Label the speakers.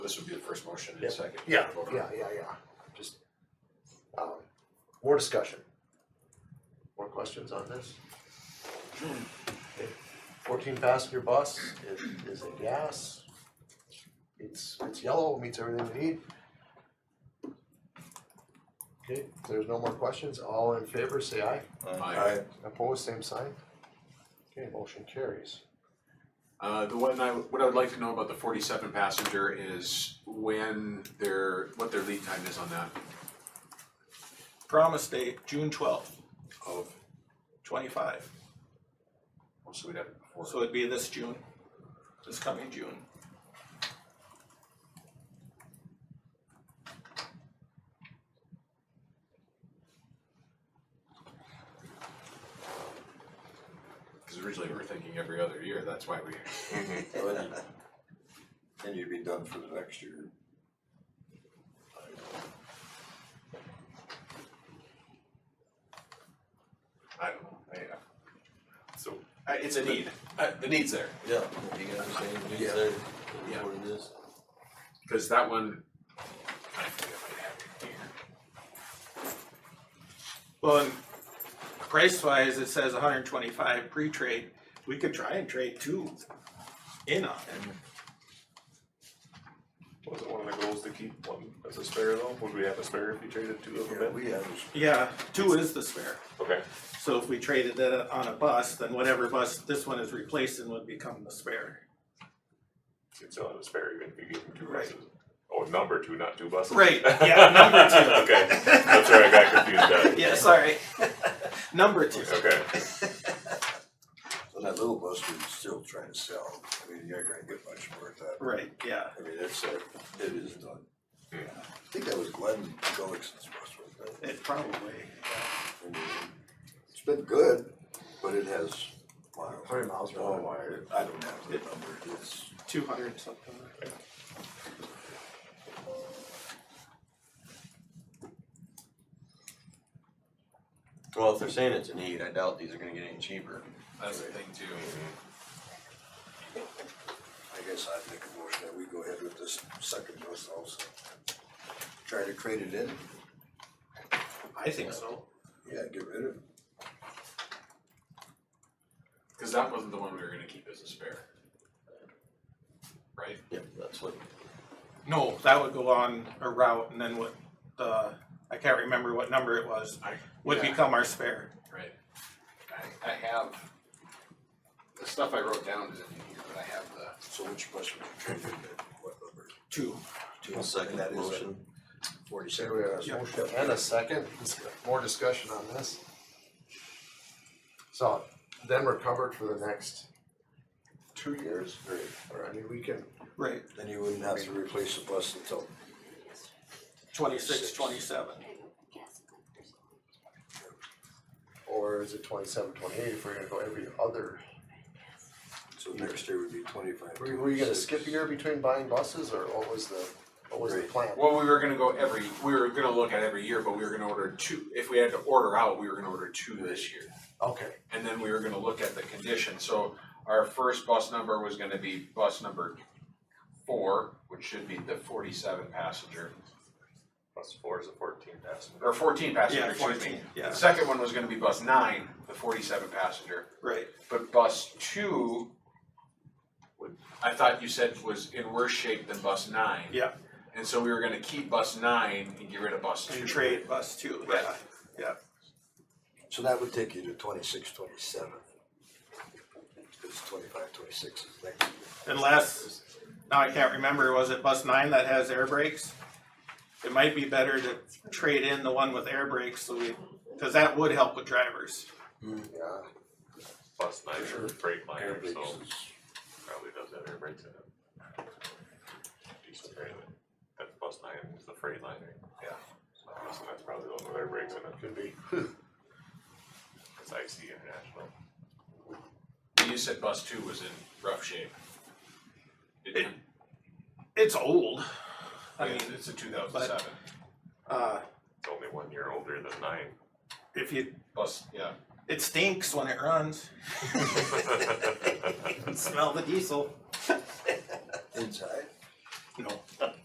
Speaker 1: This would be the first motion
Speaker 2: Yeah.
Speaker 1: and second.
Speaker 2: Yeah,
Speaker 1: Vote on it.
Speaker 2: yeah, yeah, yeah, just, um, more discussion. More questions on this? Hmm. Fourteen passenger bus is, is a gas. It's, it's yellow, meets everything we need. Okay, if there's no more questions, all in favor, say aye.
Speaker 1: Aye.
Speaker 2: Opposed, same sign. Okay, motion carries.
Speaker 1: Uh, the one I, what I would like to know about the forty-seven passenger is when their, what their lead time is on that
Speaker 3: Promise date, June twelfth,
Speaker 1: of,
Speaker 3: twenty-five,
Speaker 1: oh, so we'd have it before.
Speaker 3: so it'd be this June, this coming June.
Speaker 1: Cause originally we were thinking every other year, that's why we,
Speaker 4: And you'd be done for the next year.
Speaker 1: I don't know, I, uh, so, I, it's a need, uh, the need's there.
Speaker 5: Yeah, you got the same news
Speaker 4: Yeah.
Speaker 5: there,
Speaker 1: Yeah.
Speaker 5: what it is.
Speaker 1: Cause that one, I think I might have it here.
Speaker 3: Well, and price wise, it says hundred and twenty-five pre-trade, we could try and trade two in on it.
Speaker 6: Was it one of the goals to keep one as a spare though? Would we have a spare if we traded two of
Speaker 4: Yeah,
Speaker 6: them in?
Speaker 4: we have,
Speaker 3: Yeah, two is the spare,
Speaker 6: Okay,
Speaker 3: so if we traded that on a bus, then whatever bus this one is replacing would become the spare.
Speaker 6: so you'd still have a spare even if you gave them two
Speaker 3: Right.
Speaker 6: buses. Oh, number two, not two buses.
Speaker 3: Right, yeah, number two.
Speaker 6: Okay, that's where I got confused
Speaker 3: Yeah, sorry. Number two.
Speaker 6: at. Okay,
Speaker 4: and that little bus we're still trying to sell, I mean, you're not gonna get much for it, that,
Speaker 3: Right, yeah.
Speaker 4: I mean, it's, uh, it is done.
Speaker 6: Yeah.
Speaker 4: I think that was Glenn Gullickson's bus, wasn't it?
Speaker 3: It probably,
Speaker 4: I mean, It's been good, but it has. Hundred miles per hour. I don't have the number, it's,
Speaker 3: two hundred something.
Speaker 5: Well, if they're saying it's a need, I doubt these are gonna get any cheaper.
Speaker 1: That's the thing too.
Speaker 4: I guess I'd make a motion that we go ahead with this second bus also. Try to trade it in,
Speaker 3: I think so.
Speaker 4: yeah, get rid of it.
Speaker 1: Cause that wasn't the one we were gonna keep as a spare. Right?
Speaker 5: Yep, that's what,
Speaker 3: No, that would go on a route and then what the, I can't remember what number it was,
Speaker 1: I,
Speaker 3: would
Speaker 1: yeah.
Speaker 3: become our spare.
Speaker 1: Right. I, I have, the stuff I wrote down is in here, but I have the,
Speaker 4: So which bus would you trade it in, what number?
Speaker 3: Two.
Speaker 5: I'll second
Speaker 4: That
Speaker 5: that
Speaker 4: is it.
Speaker 5: motion.
Speaker 4: Forty-seven.
Speaker 2: There we are,
Speaker 3: Yep.
Speaker 2: motion and a second, more discussion on this. So then we're covered for the next two years, or, or I mean, we can,
Speaker 3: Right,
Speaker 4: Then you wouldn't have to replace the bus until,
Speaker 3: twenty-six, twenty-seven.
Speaker 2: or is it twenty-seven, twenty-eight, if we're gonna go every other?
Speaker 4: so next year would be twenty-five.
Speaker 2: Were, were you gonna
Speaker 4: 26.
Speaker 2: skip a year between buying buses, or what was the, what was the
Speaker 4: Right.
Speaker 2: plan?
Speaker 1: well, we were gonna go every, we were gonna look at every year, but we were gonna order two, if we had to order out, we were gonna order two this year.
Speaker 2: Okay,
Speaker 1: And then we were gonna look at the condition, so our first bus number was gonna be bus number four, which should be the forty-seven passenger,
Speaker 6: plus four is a fourteen passenger.
Speaker 1: or fourteen passenger,
Speaker 3: Yeah,
Speaker 1: excuse me.
Speaker 3: fourteen, yeah,
Speaker 1: The second one was gonna be bus nine, the forty-seven passenger.
Speaker 3: right.
Speaker 1: But bus two, would- I thought you said was in worse shape than bus nine.
Speaker 3: Yeah.
Speaker 1: And so we were gonna keep bus nine and get rid of bus two.
Speaker 3: And trade bus two, yeah, yeah.
Speaker 4: So that would take you to twenty-six, twenty-seven. It's twenty-five, twenty-six is next year.
Speaker 3: Unless, now I can't remember, was it bus nine that has air brakes? It might be better to trade in the one with air brakes, so we, cause that would help with drivers.
Speaker 2: yeah,
Speaker 6: Plus nine or brake
Speaker 4: Air
Speaker 6: liner,
Speaker 4: brakes
Speaker 6: so
Speaker 4: is-
Speaker 6: probably does have air brakes in it. Decent trade, but that's plus nine is the freight liner.
Speaker 1: Yeah.
Speaker 6: So I'm guessing that's probably the one with air brakes in it. Could be.
Speaker 3: Hmm.
Speaker 6: It's IC International.
Speaker 1: You said bus two was in rough shape.
Speaker 3: It- It's old, I
Speaker 1: I
Speaker 3: mean,
Speaker 1: mean, it's a two thousand seven,
Speaker 3: uh,
Speaker 6: It's only one year older than nine.
Speaker 3: if you,
Speaker 1: bus, yeah,
Speaker 3: it stinks when it runs. You can Smell the diesel.
Speaker 4: Inside,
Speaker 3: No.